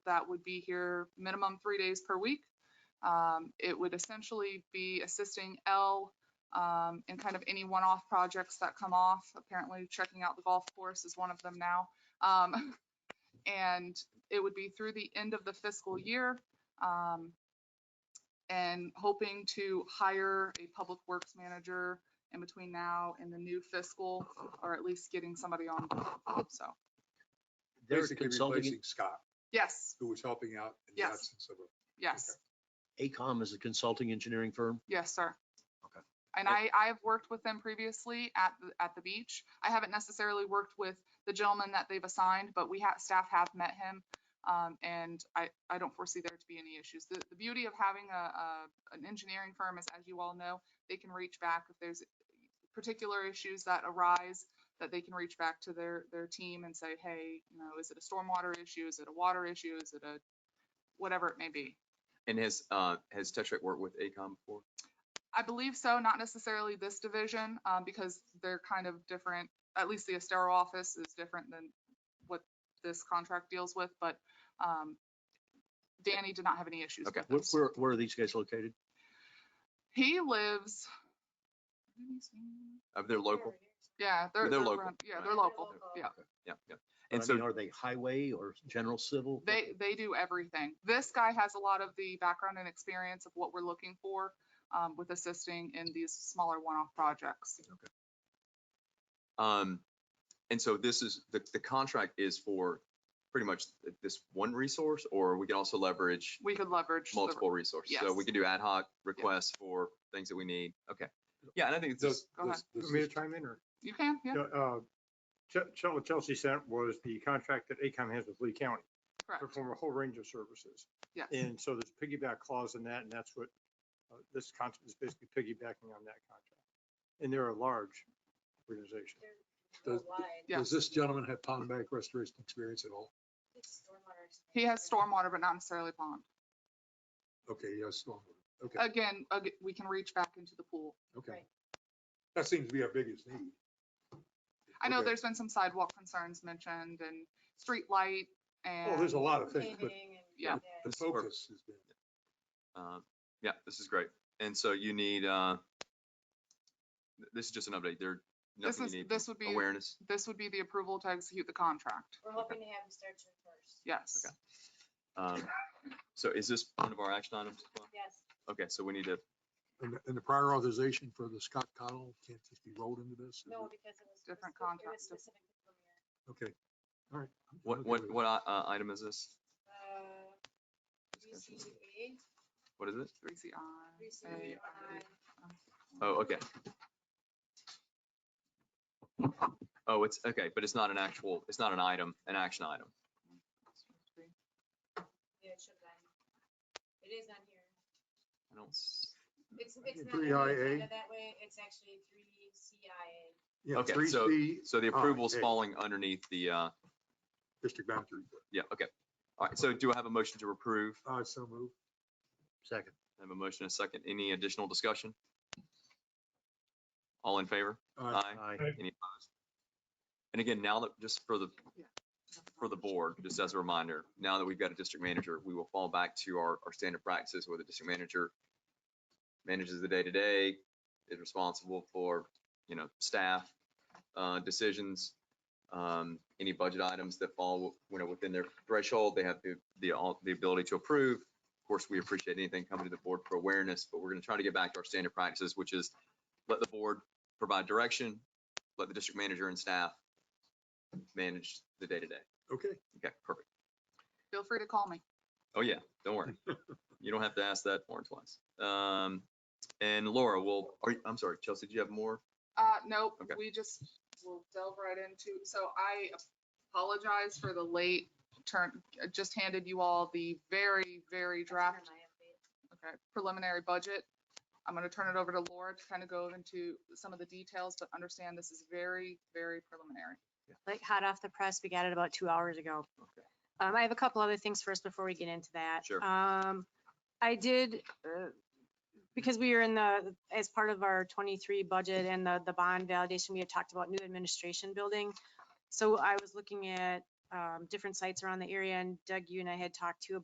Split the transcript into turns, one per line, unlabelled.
that would be here minimum three days per week. Um, It would essentially be assisting L um, in kind of any one-off projects that come off. Apparently checking out the golf course is one of them now. Um, And it would be through the end of the fiscal year. um, And hoping to hire a public works manager in between now and the new fiscal, or at least getting somebody on. board. So,
They're a
Basically
consulting-
replacing Scott,
yes,
who was helping out in the
Yes.
absence of a.
yes.
ACOM is a consulting engineering firm.
Yes, sir.
Okay.
And I, I have worked with them previously at, the at the beach. I haven't necessarily worked with the gentleman that they've assigned, but we have, staff have met him. Um, and I, I don't foresee there to be any issues. The, the beauty of having a, a, an engineering firm is, as you all know, they can reach back if there's particular issues that arise, that they can reach back to their, their team and say, hey, you know, is it a stormwater issue? Is it a water issue? Is it a, whatever it may be.
And has, uh, has Tetra Tech worked with ACOM before?
I believe so, not necessarily this division, um, because they're kind of different. At least the Estero office is different than what this contract deals with, but, um, Danny did not have any issues
Okay.
with
Where,
this.
where- where are these guys located?
He lives.
Of their local?
Yeah, they're, they're,
They're local,
around- yeah,
right.
they're local, yeah.
Yeah, yeah.
I
And
mean,
so,
are they highway or general civil?
They, they do everything. This guy has a lot of the background and experience of what we're looking for, um, with assisting in these smaller one-off projects.
um, and so this is, the, the contract is for pretty much th- this one resource, or we can also leverage
We could leverage. the-
multiple resources. So we
yes.
can do ad hoc requests for things that we need. Okay. Yeah, and I think it's
Does,
just,
Go ahead.
does, does
Want me to
this-
chime in or?
You can, yeah,
Yeah, uh, Ch- Ch- what Chelsea sent was the contract that ACOM has with Lee County. to
correct,
Perform a whole range of services.
yes.
And so there's piggyback clause in that, and that's what, uh, this contract is basically piggybacking on that contract. And they're a large organization.
does-
Worldwide,
Yeah.
does this gentleman have pond bank restoration experience at all?
it's stormwater
He has
expansion.
stormwater, but not necessarily pond.
Okay, yes, well, okay,
Again, ag- we can reach back into the pool.
okay.
Right.
That seems to be our biggest need.
I know
Okay.
there's been some sidewalk concerns mentioned and street light
Oh, there's a
and,
lot of things, but
Paving and-
Yeah.
the
This is perfect.
focus has been.
uh, yeah, this is great. And so you need, uh, th- this is just an update. There,
this
nothing
is,
you need.
this would be,
Awareness.
this would be the approval to execute the contract.
We're hoping to have them start June first.
Yes.
Okay. Um, So is this one of our action items? as well?
Yes,
Okay, so we need to
And, and the prior authorization for the Scott Cottle can't just be rolled into this? is
no,
it?
because it was.
Different
speci- it was
contract.
specific to Premier.
Okay, all right. I'm- I'm
What,
okay
what,
with it.
what i- uh, item is this?
Uh, VCA,
What is it?
Three C I. A I.
VCI,
Oh, okay. Oh, it's, okay, but it's not an actual, it's not an item, an action item.
yeah, it should have been. It is on here.
I don't, s-
It's, it's not. on the
3IA.
agenda That way, it's actually three CIA.
Yeah,
Okay,
three
so-
C
so the
Ah,
approval's
okay.
falling underneath the, uh,
District boundary,
yeah, okay. All right, so do I have a motion to approve?
uh, so move.
Second.
I have a motion and a second. Any additional discussion? All in favor?
Uh,
Aye. Any opposed? And again, now that, just for the for the board, just as a reminder, now that we've got a district manager, we will fall back to our, our standard practices where the district manager manages the day-to-day, is responsible for, you know, staff, uh, decisions, um, any budget items that fall, you know, within their threshold, they have the, the, all- the ability to approve. Of course, we appreciate anything coming to the board for awareness, but we're gonna try to get back to our standard practices, which is let the board provide direction, let the district manager and staff manage the day-to-day.
Okay.
Okay, perfect.
Feel free to call me.
Oh, yeah, don't worry. You don't have to ask that more than twice. Um, and Laura, will, are, you- I'm sorry, Chelsea, do you have more?
Uh, nope,
Okay.
we just will delve right into, so I apologize for the late turn, I just handed you all the very, very
That's where
draft
my update.
Okay, preliminary budget. I'm gonna turn it over to Laura to kind of go into some of the details, but understand this is very, very preliminary.
like hot off the press. We got it about two hours ago.
Okay.
Um, I have a couple other things first before we get into that.
Sure.
Um, I did, uh, because we are in the, as part of our twenty-three budget and the, the bond validation, we had talked about new administration building. So I was looking at um, different sites around the area. And Doug, you and I had talked too about